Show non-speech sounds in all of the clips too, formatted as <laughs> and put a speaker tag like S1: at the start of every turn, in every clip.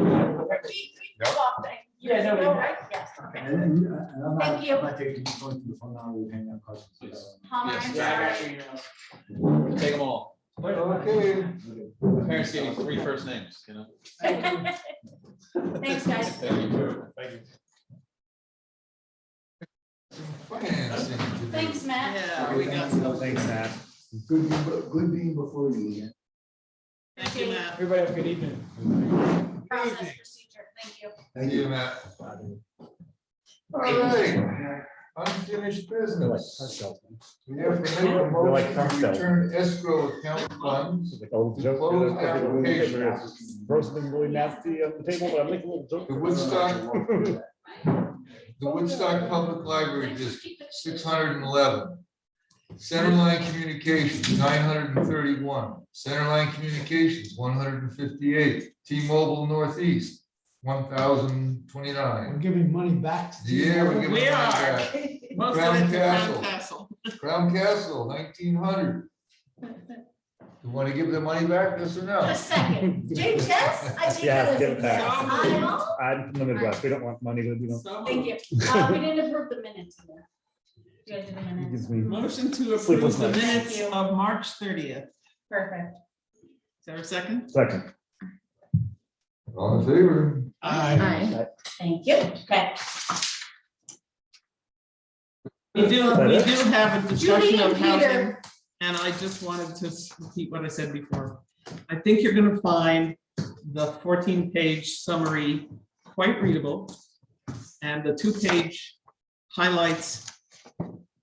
S1: We, we
S2: Yeah.
S1: walked it. You
S3: Yeah, no, we-
S1: know, right? Yes. okay.
S4: And and I'm not,
S1: Thank you.
S4: I'm not taking this one to the phone now, we hang up questions.
S5: Please.
S1: Palmer, I'm sorry.
S5: Take them all.
S4: Okay.
S5: My Parents gave me three first names, you know?
S1: Thanks, guys.
S5: Thank you.
S1: Thanks, Matt.
S6: Yeah, we got,
S4: Thanks, Matt. Good, be- good being before you again.
S6: thank you, Matt.
S3: Everybody have a good evening.
S1: Process procedure. Thank you.
S2: Thank you, Matt. All right, unfinished business. We have to make a motion to return escrow account funds.
S7: Old
S2: To close
S7: joke.
S2: applications.
S7: Roast them really nasty on the table, but I make a little
S2: <laughs>
S7: joke.
S2: The Woodstock, the Woodstock Public Library District, six hundred and eleven. Centerline Communications, nine hundred and thirty-one. Centerline Communications, one hundred and fifty-eight. T-Mobile Northeast, one thousand
S4: We're
S2: twenty-nine.
S4: giving money back to.
S2: Yeah, we're giving.
S6: We
S2: it
S6: are.
S2: back.
S6: Most of it
S2: Crown
S6: to Crown
S2: Castle.
S6: Castle.
S2: Crown Castle, nineteen hundred. You want to give the money back, yes or no?
S1: A second. James, yes? I think
S7: Yes,
S1: that was
S7: give it back.
S1: yes.
S7: I'm from the Midwest, we don't want money, but you know,
S6: So
S1: Thank you. Uh, we didn't approve the minutes. of that. You guys did the
S7: it
S1: minutes.
S7: gives me.
S6: Motion to
S7: Sleepless <laughs>
S6: approve the
S7: nights.
S6: minutes
S1: Thank you.
S6: of March thirtieth.
S1: Perfect.
S6: Is there a second?
S7: Second,
S2: All in favor?
S1: Aye. Thank you. Okay.
S6: We do,
S7: that
S6: we
S7: it?
S6: do have
S1: Judy
S6: a discussion
S1: and
S6: of housing,
S1: Peter.
S6: and I just wanted to repeat what I said before. I think you're gonna find the fourteen-page summary quite readable, and the two-page highlights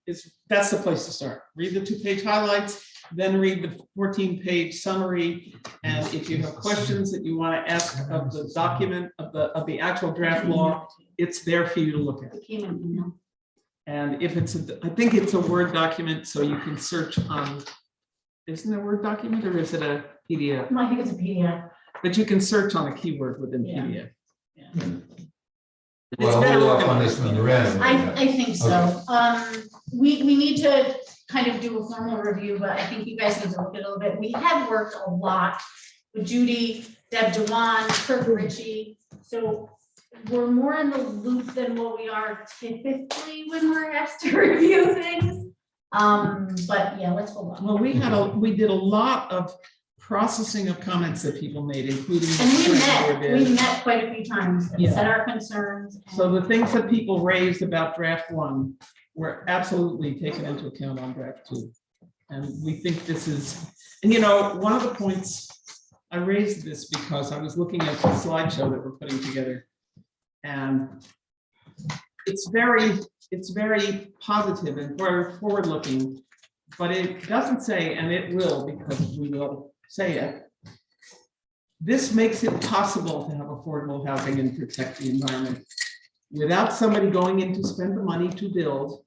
S6: is, that's the place to start. Read the two-page highlights, then read the fourteen-page summary, and if you have questions that you want to ask of the document, of the, of the actual draft law, it's there for you to look at.
S1: It came in email.
S6: And if it's, a- I think it's a Word document, so you can search on, isn't it a Word document or is it a PDF?
S1: No, I think it's a PDF.
S6: But you can search on a keyword within
S1: Yeah.
S6: PDF.
S1: Yeah.
S6: It's
S2: Well,
S6: better
S2: hold off
S6: looking
S2: on
S6: like
S2: this one, the
S6: PDF.
S2: rest.
S1: I, I think so. Um, we, we need to kind of do a formal review, but I think you guys need to look at it a little bit. We have worked a lot with Judy, Deb Dewan,
S6: Mm-hmm.
S1: Kirk Ritchie. So we're more in the loop than what we are typically when we're asked to <laughs> review things. Um, but yeah, let's hold on.
S6: Well, we had a, we did a lot of processing of comments that people made, including. the
S1: And we
S6: survey
S1: met,
S6: we
S1: we
S6: did.
S1: met quite a few times and
S6: Yeah.
S1: said our concerns. and-
S6: So the things that people raised about draft one were absolutely taken into account on draft two. And we think this is, and you know, one of the points, I raised this because I was looking at the slideshow that we're putting together. And it's very, it's very positive and very forward-looking, but it doesn't say, and it will, because we will say it. This makes it possible to have affordable housing and protect the environment without somebody going in to spend the money to build,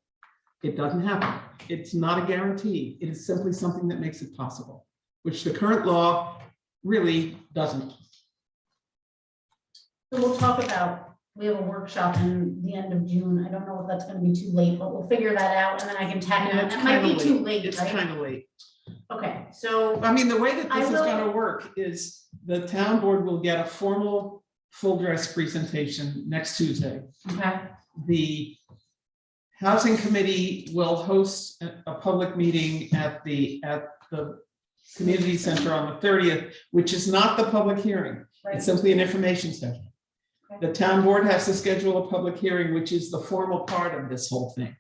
S6: it doesn't happen. It's not a guarantee. It is simply something that makes it possible, which the current law really doesn't.
S1: So we'll talk about, we have a workshop in the end of June. I don't know if that's gonna be too late, but we'll figure that out and then I can tack it
S6: Yeah,
S1: on.
S6: it's
S1: It might be
S6: kinda
S1: too late,
S6: It's
S1: right?
S6: kind of late.
S1: Okay, so,
S6: I mean, the way that
S1: I
S6: this is
S1: will-
S6: gonna work is the town board will get a formal full dress presentation next Tuesday.
S1: okay,
S6: the housing committee will host a, a public meeting at the, at the community center on the thirtieth, which is not the public hearing. It's
S1: right,
S6: simply an information session. The town board has to schedule a public hearing, which is the formal part of this whole thing.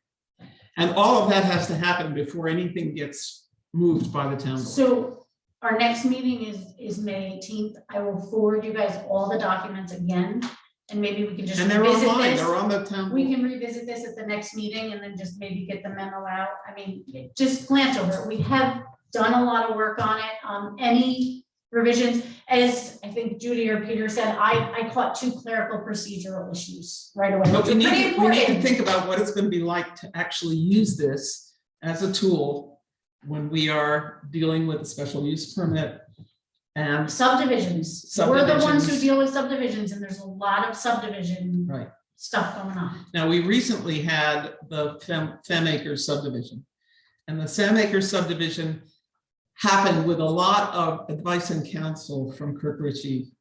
S6: And all of that has to happen before anything gets moved by the town board.
S1: so our next meeting is, is May eighteenth. I will forward you guys all the documents again. And maybe we can just
S6: And they're
S1: revisit
S6: online, they're
S1: this.
S6: on the town.
S1: We can revisit this at the next meeting and then just maybe get the memo out. I mean, just glance over it. We have done a lot of work on it. Um, any revisions, as I think Judy or Peter said, I, I caught two clerical procedural issues right away.
S6: But
S1: which
S6: we
S1: are
S6: need,
S1: pretty
S6: to- we need to
S1: important.
S6: think about what it's gonna be like to actually use this as a tool when we are dealing with a special use permit. And,
S1: Subdivisions. We're the ones who
S6: Subdivisions.
S1: deal with subdivisions and there's a lot of subdivision
S6: right,
S1: stuff going on.
S6: now, we recently had the Fem, Fem Acres subdivision. And the Sam Acres subdivision happened with a lot of advice and counsel from Kirk Ritchie